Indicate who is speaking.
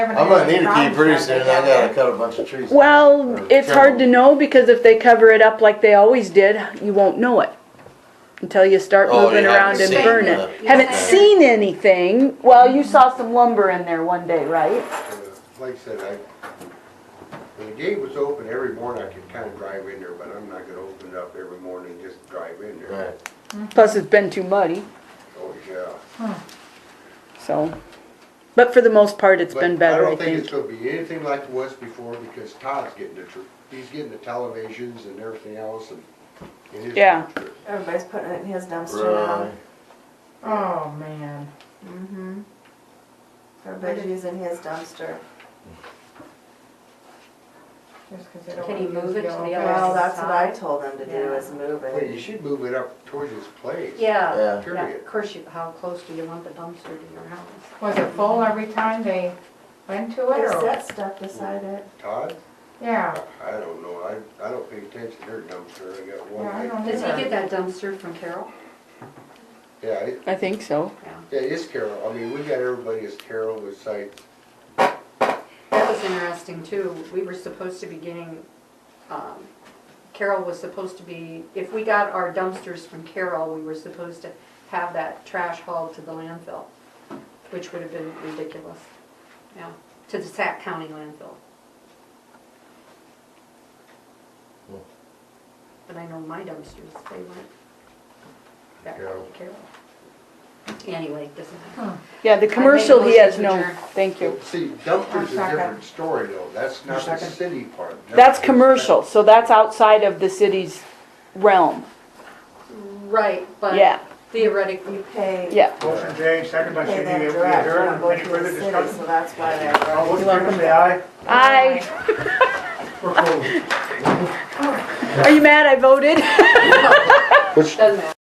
Speaker 1: I'm gonna need a key pretty soon, I gotta cut a bunch of trees.
Speaker 2: Well,
Speaker 1: Or
Speaker 2: it's
Speaker 1: trim
Speaker 2: hard to
Speaker 1: them.
Speaker 2: know because if they cover it up like they always did, you won't know it. Until you start
Speaker 1: Oh, you
Speaker 2: moving
Speaker 1: haven't
Speaker 2: around and
Speaker 1: seen
Speaker 2: burn
Speaker 1: the-
Speaker 2: it. Haven't seen anything. Well, you saw some lumber in there one day, right?
Speaker 3: uh, Like I said, I, when the gate was open every morning, I could kind of drive in there, but I'm not gonna open it up every morning and just drive in there.
Speaker 1: Right.
Speaker 2: Plus it's been too muddy,
Speaker 3: Oh, yeah.
Speaker 2: so. But for the most part, it's been
Speaker 3: But
Speaker 2: better, I
Speaker 3: don't think it's
Speaker 2: think.
Speaker 3: gonna be anything like it was before because Todd's getting the, tr- he's getting the televisions and everything else and. and his-
Speaker 2: Yeah.
Speaker 4: Everybody's putting it in his dumpster now.
Speaker 1: Right.
Speaker 5: Oh, man.
Speaker 4: Mm-hmm. Everybody's using his dumpster.
Speaker 5: Just 'cause they don't
Speaker 6: Can you
Speaker 5: wanna
Speaker 6: move
Speaker 5: use
Speaker 6: it to the
Speaker 5: yellow
Speaker 6: other
Speaker 5: pads.
Speaker 4: Well, that's what I
Speaker 6: side?
Speaker 4: told them to do
Speaker 6: Yeah.
Speaker 4: is move
Speaker 3: Well,
Speaker 4: it.
Speaker 3: you should move it up towards his place.
Speaker 6: Yeah.
Speaker 1: Yeah,
Speaker 6: Yeah,
Speaker 3: Period.
Speaker 6: of course, you, how close do you want the dumpster to your house?
Speaker 5: Was it full every time they went to it
Speaker 4: There's
Speaker 5: or?
Speaker 4: that stuff beside it.
Speaker 3: Todd,
Speaker 5: Yeah,
Speaker 3: I don't know, I, I don't pay attention to their dumpster, I got one.
Speaker 5: yeah, I
Speaker 3: I-
Speaker 5: don't
Speaker 6: Does he
Speaker 5: either.
Speaker 6: get that dumpster from Carol?
Speaker 3: Yeah, it-
Speaker 2: I think so.
Speaker 3: yeah, it's Carol, I mean, we got everybody as Carol was like,
Speaker 6: That was interesting too. We were supposed to be getting, um, Carol was supposed to be, if we got our dumpsters from Carol, we were supposed to have that trash hauled to the landfill, which would have been ridiculous. Yeah, to the Sac County landfill.
Speaker 1: Hmm.
Speaker 6: But I know my dumpsters, they went back to
Speaker 3: Carol.
Speaker 6: Carol. Anyway, doesn't matter.
Speaker 2: Yeah, the
Speaker 6: a
Speaker 2: commercial he
Speaker 6: motion
Speaker 2: has
Speaker 6: to
Speaker 2: no,
Speaker 6: adjourn.
Speaker 2: thank you.
Speaker 3: see, dumpsters is a
Speaker 5: Second.
Speaker 3: different story though, that's not the
Speaker 5: Second.
Speaker 3: city part.
Speaker 2: That's commercial, so that's outside of the city's realm.
Speaker 6: Right, but.
Speaker 2: Yeah,
Speaker 6: Theoretically,
Speaker 4: You pay, you
Speaker 2: yeah.
Speaker 7: Motion made, second by
Speaker 4: pay
Speaker 7: Cindy,
Speaker 4: them
Speaker 7: we
Speaker 4: direct, you
Speaker 7: adjourn,
Speaker 4: don't go
Speaker 7: any
Speaker 4: through the
Speaker 7: further
Speaker 4: city,
Speaker 7: discussion?
Speaker 4: so that's why they're.
Speaker 7: All those in favor say aye.
Speaker 2: I,
Speaker 7: We're closed.
Speaker 2: are you mad I voted?
Speaker 6: doesn't matter.